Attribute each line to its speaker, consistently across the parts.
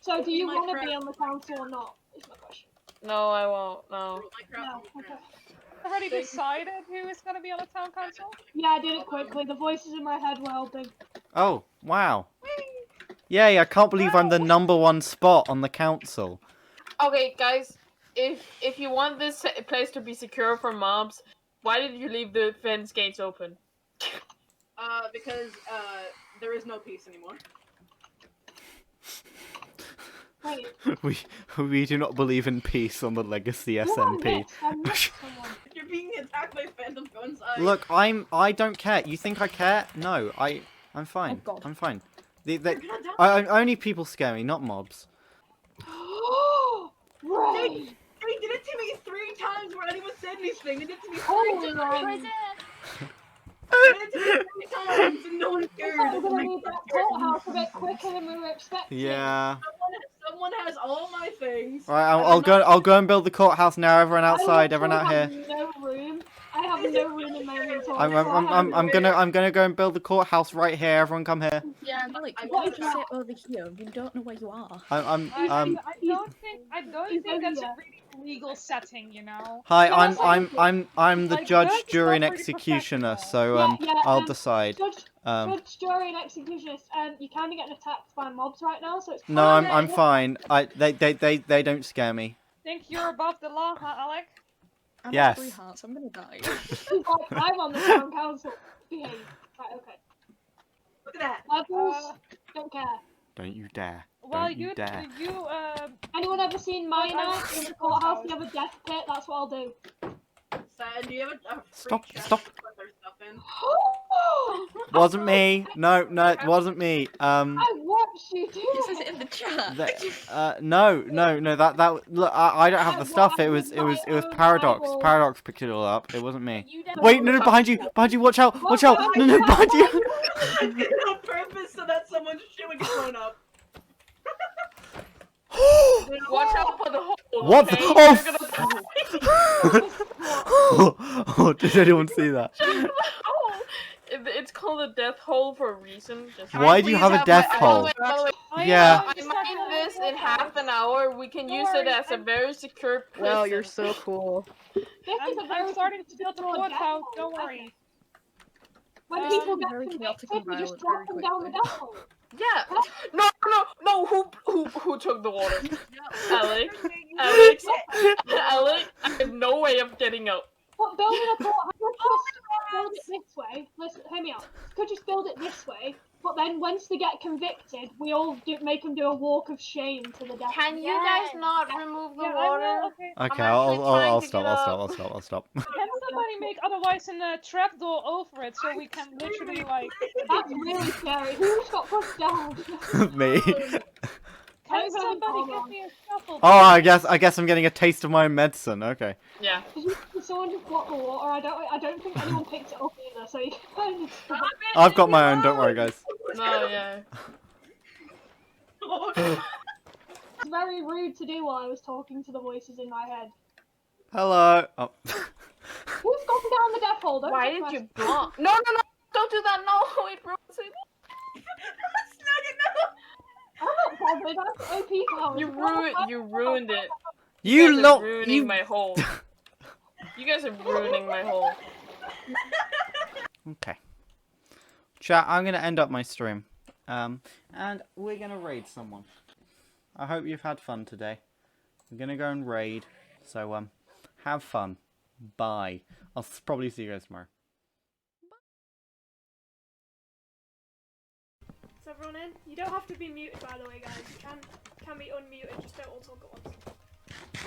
Speaker 1: So do you
Speaker 2: My
Speaker 1: want to
Speaker 2: friend-
Speaker 1: be on the council or not? Is my question.
Speaker 3: No, I won't. No.
Speaker 1: No.
Speaker 2: Minecraft.
Speaker 1: Okay.
Speaker 4: Already
Speaker 2: They-
Speaker 4: decided who is going to be on the town council?
Speaker 1: Yeah, I did it quickly. The voices in my head were helping.
Speaker 5: Oh, wow. Yay, I can't believe I'm the number one spot on the council.
Speaker 3: Okay, guys, if if you want this place to be secure from mobs, why did you leave the fence gates open?
Speaker 2: Uh, because uh, there is no peace anymore.
Speaker 1: Wait.
Speaker 5: We we do not believe in peace on the legacy
Speaker 1: who am I
Speaker 5: SNP.
Speaker 1: next? I missed someone.
Speaker 2: You're being attacked by phantom guns. I...
Speaker 5: Look, I'm I don't care. You think I care? No, I I'm fine.
Speaker 1: Oh, God.
Speaker 5: I'm fine. The,
Speaker 2: You're
Speaker 5: the,
Speaker 2: gonna die.
Speaker 5: I, I- only people scare me, not mobs.
Speaker 1: Ray!
Speaker 2: They did it to me three times when anyone said anything. They did it to me three
Speaker 1: Holy
Speaker 2: times.
Speaker 1: Ray!
Speaker 2: They did it to me three times and no one
Speaker 1: I
Speaker 2: cared.
Speaker 1: thought we were gonna
Speaker 2: Someone
Speaker 1: need that courthouse a bit quicker than we were expecting.
Speaker 5: Yeah.
Speaker 2: someone has all my things.
Speaker 5: All right, I'll,
Speaker 2: and
Speaker 5: I'll
Speaker 2: I'm
Speaker 5: go.
Speaker 2: not-
Speaker 5: I'll go and build the courthouse now. Everyone
Speaker 1: I
Speaker 5: outside.
Speaker 1: literally
Speaker 5: Everyone out
Speaker 1: have
Speaker 5: here.
Speaker 1: No room. I have no room in my inventory.
Speaker 5: I'm, I'm,
Speaker 1: so I have
Speaker 5: I'm, I'm,
Speaker 1: no
Speaker 5: I'm
Speaker 1: room.
Speaker 5: gonna I'm gonna go and build the courthouse right here. Everyone come here.
Speaker 6: Yeah, like,
Speaker 2: I
Speaker 6: why
Speaker 2: want
Speaker 6: did
Speaker 2: that.
Speaker 6: you sit over here? You don't know where you are.
Speaker 5: I'm, I'm um.
Speaker 4: I don't think I don't
Speaker 1: he's
Speaker 4: think that's a
Speaker 1: over
Speaker 4: really legal setting, you know.
Speaker 5: Hi,
Speaker 1: Yeah,
Speaker 5: I'm
Speaker 1: that's
Speaker 5: I'm
Speaker 1: awful.
Speaker 5: I'm I'm the
Speaker 4: Like,
Speaker 5: judge,
Speaker 4: that's
Speaker 5: jury, and
Speaker 4: not really
Speaker 5: executioner.
Speaker 4: professional.
Speaker 5: So
Speaker 1: Yeah,
Speaker 5: um,
Speaker 1: yeah,
Speaker 5: I'll
Speaker 1: um,
Speaker 5: decide.
Speaker 1: Judge,
Speaker 5: Um,
Speaker 1: judge, jury, and executionist. Um, you kind of getting attacked by mobs right now, so it's.
Speaker 5: no, I'm
Speaker 1: kinda-
Speaker 5: I'm fine. I they they they, they don't scare me.
Speaker 4: Think you're above the law, huh, Alec?
Speaker 6: I'm at
Speaker 5: Yes.
Speaker 6: three hearts. I'm gonna die.
Speaker 1: She's like, I'm on the town council. Behave. Right, okay.
Speaker 2: Look at that.
Speaker 1: Levels,
Speaker 4: Uh,
Speaker 1: don't care.
Speaker 5: Don't you dare.
Speaker 4: Well,
Speaker 5: Don't you
Speaker 4: you
Speaker 5: dare.
Speaker 4: you uh,
Speaker 1: Anyone ever seen
Speaker 4: Like,
Speaker 1: Miner
Speaker 4: I'm-
Speaker 1: in the courthouse? You have a death pit? That's what I'll do.
Speaker 2: Sad. Do you have a, a free
Speaker 5: Stop,
Speaker 2: chest
Speaker 5: stop.
Speaker 2: to put their stuff in?
Speaker 5: Wasn't me. No, no, it wasn't me. Um,
Speaker 1: I watched you do
Speaker 6: This is
Speaker 1: it.
Speaker 6: in the chat.
Speaker 5: the, uh, no, no, no. That that look. I, I don't have the stuff. It was it was it was paradox. Paradox picked it all up. It wasn't me. Wait, no, no, behind you, behind you. Watch out, watch out. No, no, behind you.
Speaker 2: I did it on purpose so that someone's shit would get blown up.
Speaker 3: Watch out for the hole.
Speaker 5: What? the-
Speaker 3: okay?
Speaker 5: Oh.
Speaker 3: You're gonna-
Speaker 5: f- oh, did anyone see that?
Speaker 3: Oh, it- it's called a death hole for a reason. Just
Speaker 5: Why do you have a death hole?
Speaker 3: By the way,
Speaker 4: I,
Speaker 5: Yeah.
Speaker 4: uh,
Speaker 3: I
Speaker 4: just had
Speaker 3: mined
Speaker 4: to-
Speaker 3: this in half an hour. We can
Speaker 4: Don't
Speaker 3: use it
Speaker 4: worry,
Speaker 3: as a
Speaker 4: I'm-
Speaker 3: very secure prison.
Speaker 7: Wow, you're so cool.
Speaker 1: This is
Speaker 4: I'm,
Speaker 1: a
Speaker 4: I'm
Speaker 1: very
Speaker 4: starting to build the
Speaker 1: small death
Speaker 4: courthouse.
Speaker 1: hole.
Speaker 4: Don't worry.
Speaker 1: When
Speaker 4: Um,
Speaker 1: people get
Speaker 6: very chaotic
Speaker 1: convicted, you just
Speaker 6: environment,
Speaker 1: drop them
Speaker 6: very
Speaker 1: down the
Speaker 6: quickly.
Speaker 1: death hole.
Speaker 3: Yeah. No, no, no. Who, who, who took the water?
Speaker 2: No.
Speaker 3: Alex,
Speaker 2: You
Speaker 3: Alex,
Speaker 2: shit.
Speaker 3: Alec, I have no way of getting out.
Speaker 1: But building a courthouse, you could just
Speaker 4: Oh
Speaker 1: build it this way. Listen, hear me out. You could just build it this way. But then, once they get convicted, we all do, make them do a walk of shame to the death.
Speaker 3: Can you
Speaker 6: Yes.
Speaker 3: guys not remove the
Speaker 4: Yeah, I
Speaker 3: water?
Speaker 4: will.
Speaker 5: Okay,
Speaker 4: Okay.
Speaker 3: actually
Speaker 5: I'll I'll,
Speaker 3: trying
Speaker 5: I'll
Speaker 3: to
Speaker 5: stop.
Speaker 3: get
Speaker 5: I'll
Speaker 3: up.
Speaker 5: stop. I'll stop. I'll stop.
Speaker 4: Can somebody make otherwise in a trapdoor over it so we can literally like?
Speaker 1: That's really scary. Who just got pushed down?
Speaker 5: me.
Speaker 3: Oh,
Speaker 1: Can
Speaker 4: Can
Speaker 1: somebody
Speaker 4: somebody
Speaker 1: get
Speaker 4: give me a shuffle?
Speaker 5: Oh, I guess I guess I'm getting a taste of my own medicine. Okay.
Speaker 3: Yeah.
Speaker 1: Someone just bought the water. I don't. I don't think anyone picked it up either. So you can
Speaker 2: Stop it,
Speaker 5: I've got
Speaker 2: leave
Speaker 5: my
Speaker 2: me
Speaker 5: own. Don't worry,
Speaker 2: alone.
Speaker 5: guys.
Speaker 3: No, yeah.
Speaker 4: oh,
Speaker 1: It's very rude to do while I was talking to the voices in my head.
Speaker 5: Hello. Oh.
Speaker 1: Who's gone down the death hole? Don't
Speaker 3: Why
Speaker 1: touch
Speaker 3: did
Speaker 1: my-
Speaker 3: you block? No, no, no! Don't do that! No, it ruins it.
Speaker 2: Snug
Speaker 1: I'm not bothered. I have OP powers.
Speaker 3: You
Speaker 1: Go on,
Speaker 3: ruined,
Speaker 1: I-
Speaker 3: you ruined it.
Speaker 5: you
Speaker 3: guys are
Speaker 5: lot.
Speaker 3: ruining
Speaker 5: You.
Speaker 3: my hole. You guys are ruining my hole.
Speaker 5: Okay. Chat. I'm gonna end up my stream. Um, and we're gonna raid someone. I hope you've had fun today. I'm gonna go and raid. So um, have fun. Bye. I'll s- probably see you guys tomorrow.
Speaker 8: Is everyone in? You don't have to be muted, by the way, guys. You can can be unmuted. Just don't all talk at once.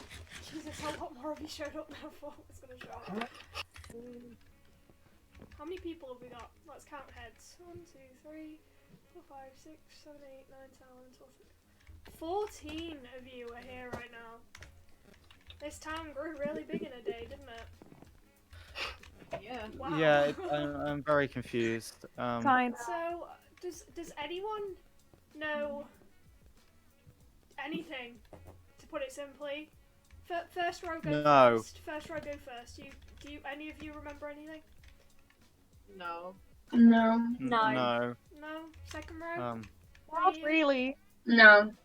Speaker 8: Jesus, a lot more of you showed up now. For was gonna show up. How many people have we got? Let's count heads. One, two, three, four, five, six, seven, eight, nine, ten, eleven, twelve, thirteen. Fourteen of you are here right now. This town grew really big in a day, didn't it?
Speaker 2: it, no! Yeah. Wow.
Speaker 5: Yeah, it, um, I'm, I'm very confused. Um,
Speaker 4: Fine.
Speaker 8: So, does does anyone know anything? To put it simply, Fir- first row go
Speaker 5: No.
Speaker 8: first. First row go first. You do you, any of you remember anything?
Speaker 2: No.
Speaker 6: No,
Speaker 5: n- no.
Speaker 8: No. Second row.
Speaker 5: Um,
Speaker 8: Not
Speaker 4: really.
Speaker 6: no.